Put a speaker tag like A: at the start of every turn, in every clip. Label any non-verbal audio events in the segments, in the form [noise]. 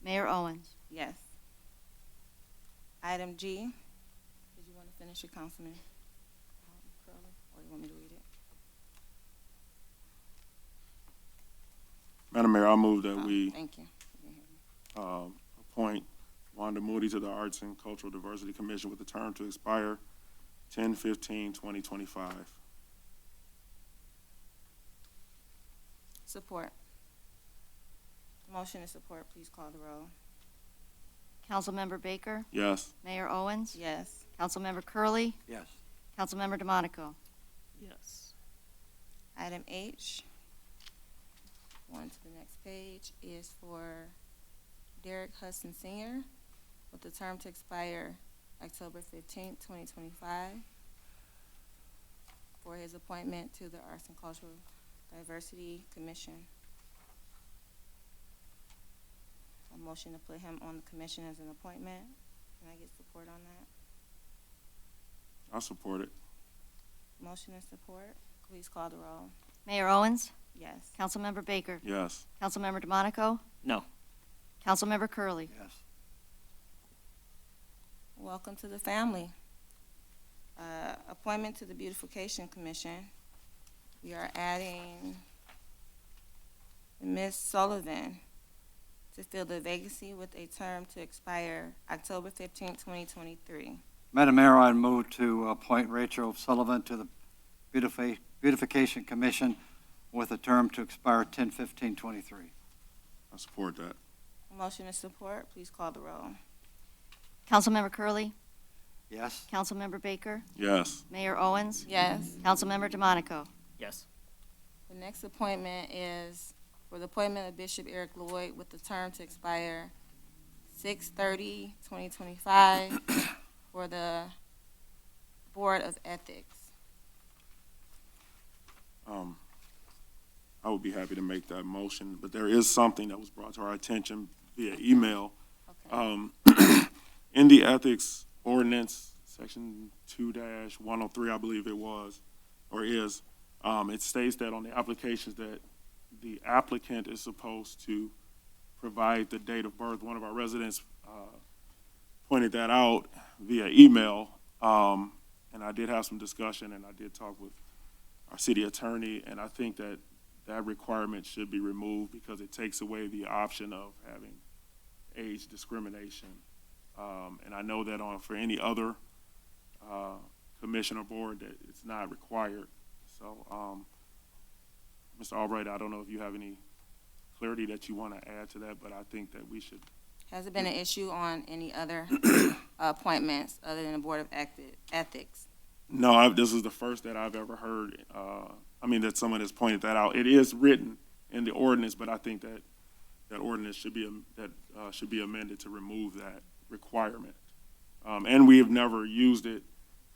A: Mayor Owens.
B: Yes. Item G, did you want to finish it, Councilman um, Curley, or you want me to read it?
C: Madam Mayor, I move that
B: Oh,
C: we
B: Thank you.
C: uh, appoint Wanda Moody to the Arts and Cultural Diversity Commission with a term to expire 2025.
B: Support. Motion and support, please call the roll.
A: Councilmember Baker,
C: Yes.
A: Mayor Owens,
B: Yes.
A: Councilmember Curley,
D: Yes.
A: Councilmember DeMonico.
E: yes,
B: Item H, on to the next page, is for Derek Hudson Senior with the term to expire October fifteenth, twenty twenty-five for his appointment to the Arts and Cultural Diversity Commission. A motion to put him on the commission as an appointment. Can I get support on that?
C: I support it.
B: Motion and support. Please call the roll.
A: Mayor Owens,
B: Yes.
A: Councilmember Baker,
C: Yes.
A: Councilmember DeMonico.
D: No.
A: Councilmember Curley.
D: Yes.
B: Welcome to the family. Uh, Appointment to the Beautification Commission. We are adding Ms. Sullivan to fill the vacancy with a term to expire October fifteenth, twenty twenty-three.
D: Madam Mayor, I move to appoint Rachel Sullivan to the Beautifi- Beautification Commission with a term to expire 10/15/23.
C: I support that.
B: Motion and support, please call the roll.
A: Councilmember Curley,
D: Yes?
A: Councilmember Baker,
C: Yes.
A: Mayor Owens,
B: Yes.
A: Councilmember DeMonico.
F: yes,
B: The next appointment is for the appointment of Bishop Eric Lloyd with the term to expire 2025 [coughs] for the Board of Ethics.
C: Um, I would be happy to make that motion, but there is something that was brought to our attention via email
B: Okay.
C: Um, [clears throat] in the ethics ordinance, section two dash one oh three, I believe it was, or is, um, it states that on the applications that the applicant is supposed to provide the date of birth. One of our residents, uh, pointed that out via email. Um, and I did have some discussion and I did talk with our city attorney, and I think that that requirement should be removed because it takes away the option of having age discrimination. Um, and I know that on, for any other, uh, commission or board that it's not required. So, um, Mr. Albright, I don't know if you have any clarity that you want to add to that, but I think that we should,
B: Has it been an issue on any other [coughs] appointments other than the Board of Eth- Ethics?
C: no, I, this is the first that I've ever heard, uh, I mean, that someone has pointed that out. It is written in the ordinance, but I think that, that ordinance should be, am- that, uh, should be amended to remove that requirement. Um, and we have never used it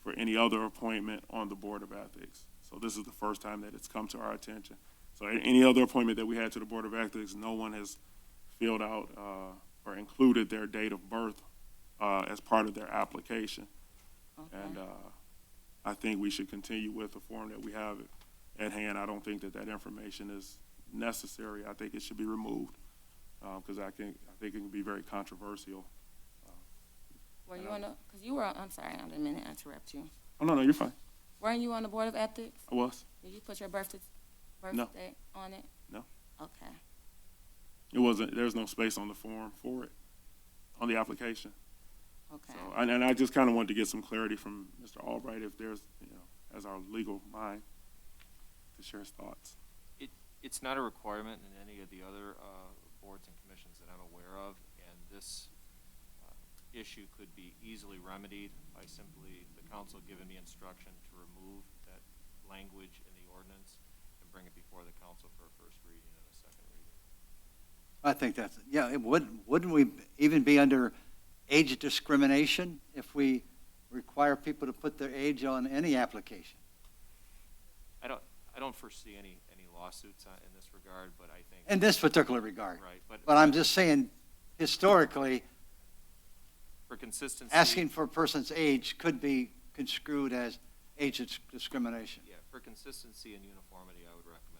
C: for any other appointment on the Board of Ethics. So this is the first time that it's come to our attention. So a- any other appointment that we had to the Board of Ethics, no one has filled out, uh, or included their date of birth, uh, as part of their application. And, uh, I think we should continue with the form that we have at hand. I don't think that that information is necessary. I think it should be removed, uh, because I think, I think it can be very controversial.
B: Were you on the, because you were, on- I'm sorry, I didn't mean to interrupt you.
C: Oh, no, no, you're fine.
B: Weren't you on the Board of Ethics?
C: I was.
B: Did you put your birthday,
C: No.
B: birthday on it?
C: No.
B: Okay.
C: It wasn't, there's no space on the form for it, on the application.
B: Okay.
C: So, and, and I just kind of wanted to get some clarity from Mr. Albright if there's, you know, as our legal mind to share his thoughts.
G: it's not a requirement in any of the other uh, boards and commissions that I'm aware of, and this uh, issue could be easily remedied by simply the council giving me instruction to remove that language in the ordinance and bring it before the council for a first reading and a second reading.
D: I think that's, yeah, it would, wouldn't we even be under age discrimination if we require people to put their age on any application?
G: I don't, I don't foresee any, any lawsuits uh, in this regard, but I think,
D: In this particular regard.
G: right,
D: But
G: but
D: I'm just saying, historically,
G: for consistency.
D: asking for a person's age could be construed as age discrimination.
G: Yeah, for consistency and uniformity, I would recommend uh,